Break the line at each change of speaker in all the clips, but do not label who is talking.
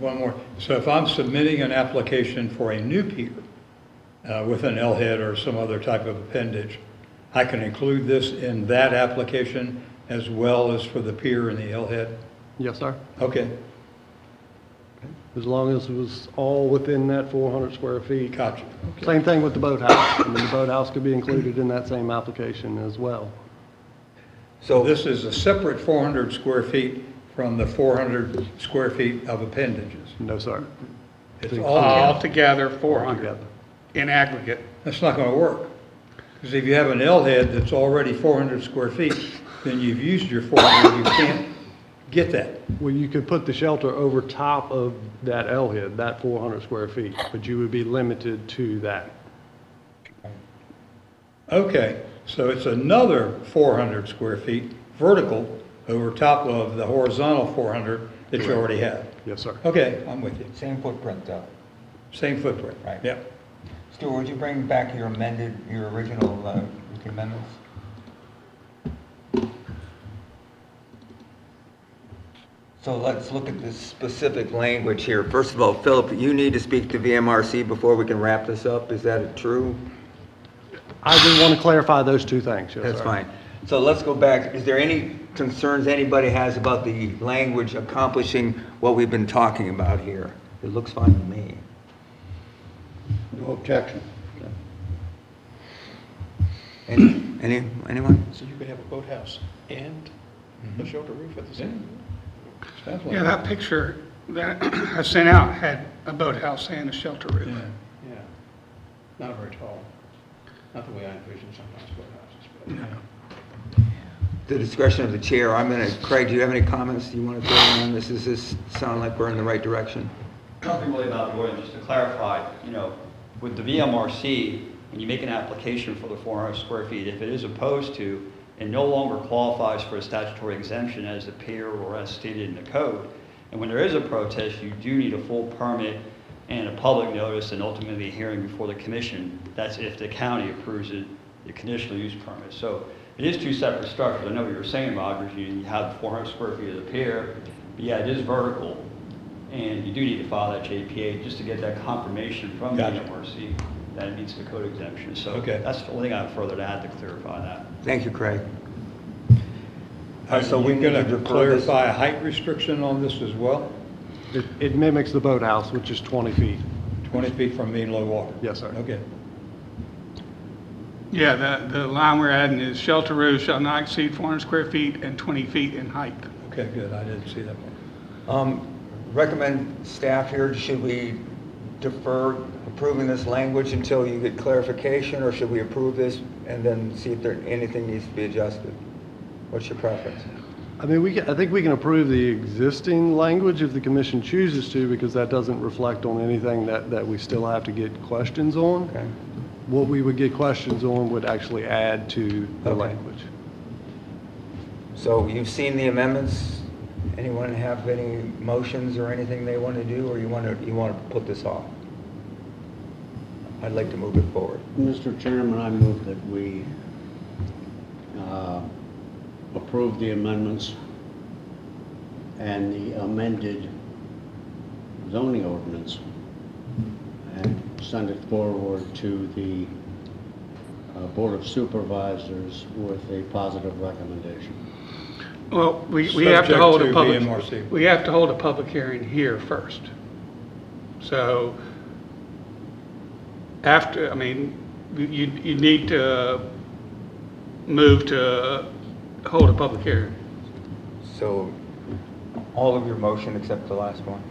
One more. So if I'm submitting an application for a new pier uh, with an L-head or some other type of appendage, I can include this in that application as well as for the pier and the L-head?
Yes, sir.
Okay,
As long as it was all within that 400 square feet.
gotcha.
Same thing with the boathouse. I mean, the boathouse could be included in that same application as well.
So
So,
This is a separate 400 square feet from the 400 square feet of appendages.
No, sir.
It's all,
Altogether, 400
Together.
in aggregate.
that's not going to work. Because if you have an L-head that's already 400 square feet, then you've used your 400, you can't get that.
Well, you could put the shelter over top of that L-head, that 400 square feet, but you would be limited to that.
Okay, so it's another 400 square feet vertical over top of the horizontal 400 that you already have.
Yes, sir.
Okay, I'm with you.
same footprint though.
Same footprint.
Right.
Yep.
Stuart, would you bring back your amended, your original uh, amendments? So let's look at this specific language here. First of all, Philip, you need to speak to VMRC before we can wrap this up. Is that true?
I do want to clarify those two things, yes, sir.
That's fine. So let's go back. Is there any concerns anybody has about the language accomplishing what we've been talking about here? It looks fine to me.
No objection.
Any, any- anyone?
So you could have a boathouse and
Mm-hmm.
a shelter roof at the same?
Sounds like
Yeah, that picture that I sent out had a boathouse and a shelter
it.
roof.
Yeah.
Yeah. Not very tall. Not the way I envision sometimes boathouses, but.
The discretion of the chair, I'm going to, Craig, do you have any comments you want to throw in on this? Does this sound like we're in the right direction?
Nothing really about the ordinance, just to clarify, you know, with the VMRC, when you make an application for the 400 square feet, if it is opposed to and no longer qualifies for a statutory exemption as a pier or as stated in the code, and when there is a protest, you do need a full permit and a public notice and ultimately a hearing before the commission. That's if the county approves it, the conditional use permit. So it is two separate structures. I know what you were saying, Rogers, you you have the 400 square feet of the pier, but yeah, it is vertical. And you do need to file that JPA just to get that confirmation from the
Gotcha.
MRC that it meets the code exemption. So
Okay.
that's the only thing I have further to add to clarify that.
Thank you, Craig.
Are
So we
you going
need to
to
defer this-
clarify a height restriction on this as well?
It- It mimics the boathouse, which is 20 feet.
20 feet from mean low water?
Yes, sir.
Okay.
Yeah, the, the line we're adding is shelter roof shall not exceed 400 square feet and 20 feet in height.
Okay, good. I didn't see that one.
Um, Recommend staff here, should we defer approving this language until you get clarification, or should we approve this and then see if there, anything needs to be adjusted? What's your preference?
I mean, we, ca- I think we can approve the existing language if the commission chooses to, because that doesn't reflect on anything that, that we still have to get questions on.
Okay.
What we would get questions on would actually add to the
Okay.
language.
So you've seen the amendments. Anyone have any motions or anything they want to do, or you want to, you want to put this off? I'd like to move it forward.
Mr. Chairman, I move that we uh, approve the amendments and the amended zoning ordinance and send it forward to the uh, Board of Supervisors with a positive recommendation.
Well, we, we have to hold a
Subject to
public.
VMRC.
We have to hold a public hearing here first. So after, I mean, you, you need to move to hold a public hearing.
So all of your motion except the last one?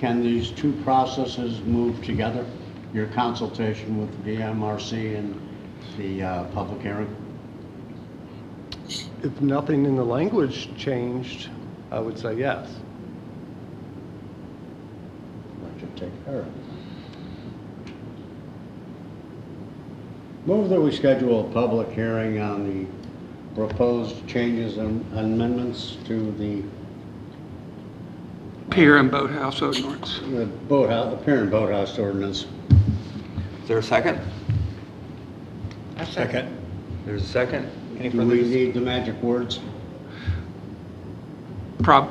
Can these two processes move together? Your consultation with VMRC and the uh, public hearing?
If nothing in the language changed, I would say yes.
Let you take care of it. Move that we schedule a public hearing on the proposed changes and amendments to the
Pier and boathouse ordinance.
the boathouse, the pier and boathouse ordinance.
Is there a second?
Second.
There's a second? Any
Do
further
we
dis-
need the magic words?
Prob,